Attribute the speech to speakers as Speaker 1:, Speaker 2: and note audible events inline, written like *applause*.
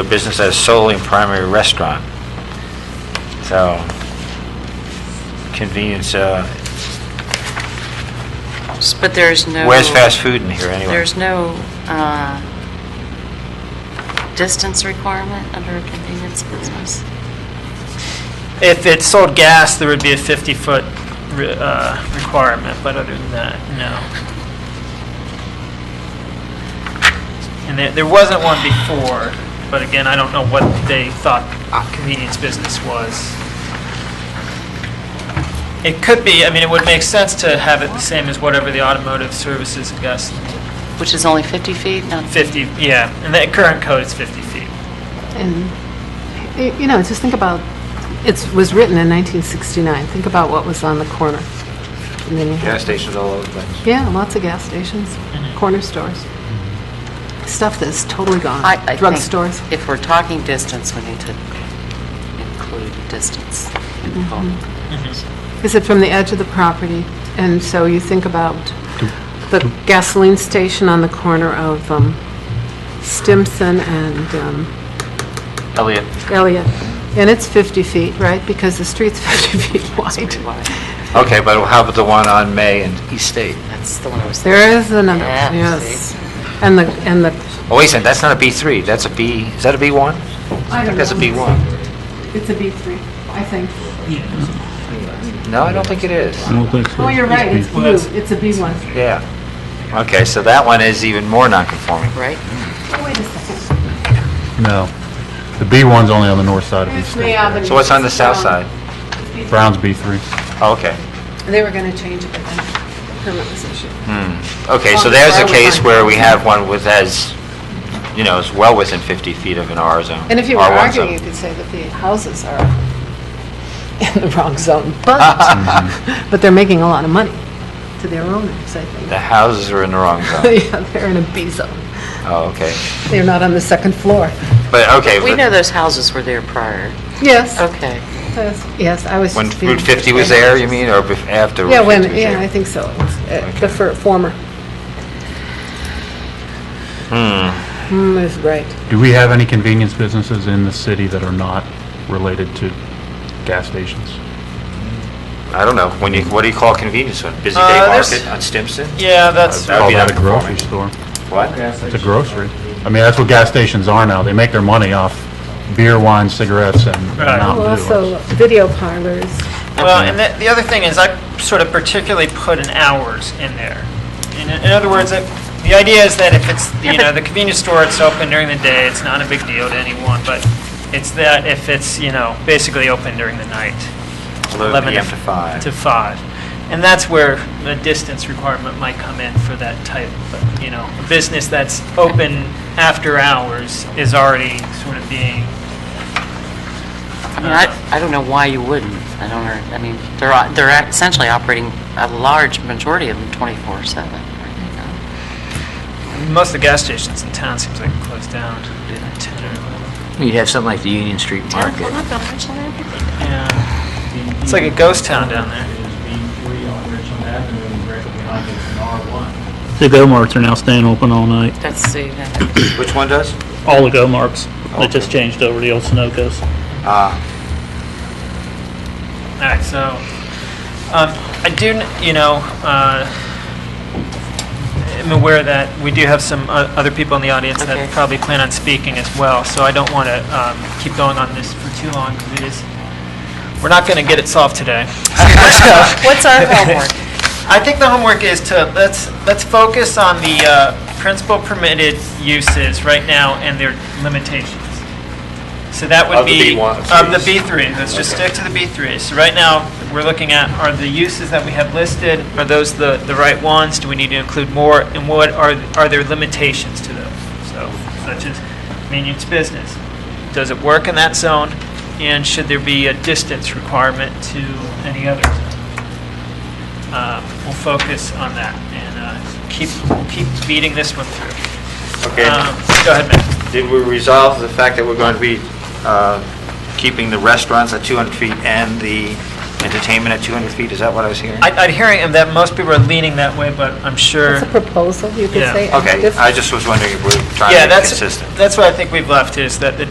Speaker 1: a business as solely a primary restaurant. So convenience, uh,
Speaker 2: S- But there's no...
Speaker 1: where's fast food in here anyway?
Speaker 2: There's no uh, distance requirement under a convenience business?
Speaker 3: If it sold gas, there would be a 50-foot re- uh, requirement, but other than that, no. And there, there wasn't one before, but again, I don't know what they thought a convenience business was. It could be, I mean, it would make sense to have it the same as whatever the automotive services, I guess,
Speaker 2: Which is only 50 feet, not
Speaker 3: 50, yeah, and the current code is 50 feet.
Speaker 4: And, y- you know, just think about, it was written in 1969. Think about what was on the corner. And then you had-
Speaker 1: Gas stations all over the place.
Speaker 4: Yeah, lots of gas stations, corner stores, stuff that's totally gone.
Speaker 2: I I think
Speaker 4: Drugstores.
Speaker 2: If we're talking distance, we need to include distance. involved.
Speaker 4: Is it from the edge of the property? And so you think about the gasoline station on the corner of um, Stimson and um,
Speaker 1: Elliot,
Speaker 4: Elliott. And it's 50 feet, right? Because the street's *laughs* 50 feet wide.
Speaker 2: Pretty wide.
Speaker 1: okay, but how about the one on May and East State?
Speaker 2: That's the one I was thinking.
Speaker 4: There is another,
Speaker 2: Yeah,
Speaker 4: yes.
Speaker 2: see.
Speaker 4: And the, and the,
Speaker 1: Oh, wait a second, that's not a B3, that's a B, is that a B1? I think that's a B1.
Speaker 4: it's a B3, I think.
Speaker 1: No, I don't think it is.
Speaker 5: I don't think so.
Speaker 4: Oh, you're right, it's
Speaker 3: Well,
Speaker 4: blue,
Speaker 3: that's-
Speaker 4: it's a B1.
Speaker 1: Yeah. Okay, so that one is even more non-conforming.
Speaker 2: Right?
Speaker 4: Oh, wait a second.
Speaker 5: No. The B1's only on the north side of
Speaker 4: Here's
Speaker 5: East
Speaker 4: May
Speaker 5: State.
Speaker 4: Avenue.
Speaker 1: So what's on the
Speaker 4: Um,
Speaker 1: south side?
Speaker 5: Brown's B3.
Speaker 1: Oh, Okay.
Speaker 4: They were going to change it, but then permit was issued.
Speaker 1: Okay, so
Speaker 4: Well,
Speaker 1: there's a
Speaker 4: where we
Speaker 1: case
Speaker 4: find-
Speaker 1: where we have one with as, you know, is well within 50 feet of an R zone.
Speaker 4: And if you were
Speaker 1: R1 zone.
Speaker 4: arguing,
Speaker 1: *laughs*
Speaker 4: you could say that the houses are *laughs* in the wrong zone, *laughs*
Speaker 1: *laughs* Mm-hmm.
Speaker 4: but, but they're making a lot of money to their owners, I think. *laughs*
Speaker 1: The houses are in the wrong zone.
Speaker 4: Yeah, they're in a B zone.
Speaker 1: Oh, okay.
Speaker 4: They're not on the second floor.
Speaker 1: But, okay,
Speaker 2: We
Speaker 1: but
Speaker 2: know those houses were there prior.
Speaker 4: Yes,
Speaker 2: Okay.
Speaker 4: yes, yes, I was
Speaker 1: when
Speaker 4: just being-
Speaker 1: Route 50 was there, you mean, or bef- after Route
Speaker 4: Yeah,
Speaker 1: 50 was
Speaker 4: when,
Speaker 1: there?
Speaker 4: yeah, I think so. Uh, The fir- former. Hmm. is right.
Speaker 5: Do we have any convenience businesses in the city that are not related to gas stations?
Speaker 1: I don't know. When you, what do you call a convenience one? Busy
Speaker 3: Uh,
Speaker 1: Day
Speaker 3: there's-
Speaker 1: Market on Stimson?
Speaker 3: Yeah, that's,
Speaker 1: That would
Speaker 5: Call
Speaker 1: be
Speaker 5: that a
Speaker 1: non-conforming.
Speaker 5: grocery store.
Speaker 1: What?
Speaker 5: It's a grocery. I mean, that's what gas stations are now. They make their money off beer, wine, cigarettes, and and
Speaker 3: Right.
Speaker 4: Oh,
Speaker 5: Mountain Dew.
Speaker 4: Also, video parlors.
Speaker 3: Well, and the, the other thing is, I sort of particularly put an hours in there. In, in other words, it- the idea is that if it's, you know, the convenience store, it's open during the day, it's not a big deal to anyone, but it's that if it's, you know, basically open during the night.
Speaker 1: 11 PM to 5.
Speaker 3: To 5. And that's where the distance requirement might come in for that type, of, you know, a business that's open after hours is already sort of being, uh,
Speaker 2: I mean, I, I don't know why you wouldn't. I don't, know. I mean, they're, o- they're essentially operating, a large majority of them 24/7. right?
Speaker 3: most of the gas stations in town seems like closed down at 10 or 11.
Speaker 6: You'd have something like the Union Street Market.
Speaker 3: Yeah. It's like a ghost town down there.
Speaker 7: is B3 on Richland Avenue, and right behind it is an R1.
Speaker 8: The go marts are now staying open all night.
Speaker 2: That's, so you have-
Speaker 1: Which one does?
Speaker 8: All the go marts that just changed over the old Sunoco's.
Speaker 1: Ah,
Speaker 3: All right, so um, I do, kn- you know, uh, I'm aware that we do have some uh, other people in the audience
Speaker 2: Okay.
Speaker 3: that probably plan on speaking as well, so I don't want to um, keep going on this for too long because it is, we're not going to get it solved today.
Speaker 2: *laughs* What's our homework?
Speaker 3: *laughs* I think the homework is to, let's, let's focus on the uh, principal permitted uses right now and their limitations. So that
Speaker 1: Of
Speaker 3: would
Speaker 1: the
Speaker 3: be.
Speaker 1: B1s.
Speaker 3: Of the B3, let's just stick to the B3. So right now, we're looking at, are the uses that we have listed, are those the, the right ones? Do we need to include more? And what are, are there limitations to those? So, such as convenience business, does it work in that zone? And should there be a distance requirement to any other zone? Uh, We'll focus on that and uh, keep, keep beating this one through. Um,
Speaker 1: okay.
Speaker 3: Go ahead, Matt.
Speaker 1: Did we resolve the fact that we're going to be uh, keeping the restaurants at 200 feet and the entertainment at 200 feet? Is that what I was hearing?
Speaker 3: I- I'd hearing that most people are leaning that way, but I'm sure.
Speaker 4: It's a proposal, you could
Speaker 3: Yeah.
Speaker 4: say.
Speaker 1: Okay,
Speaker 4: Different-
Speaker 1: I just was wondering if we're trying
Speaker 3: Yeah,
Speaker 1: to be
Speaker 3: that's,
Speaker 1: consistent.
Speaker 3: that's what I think we've left, is that the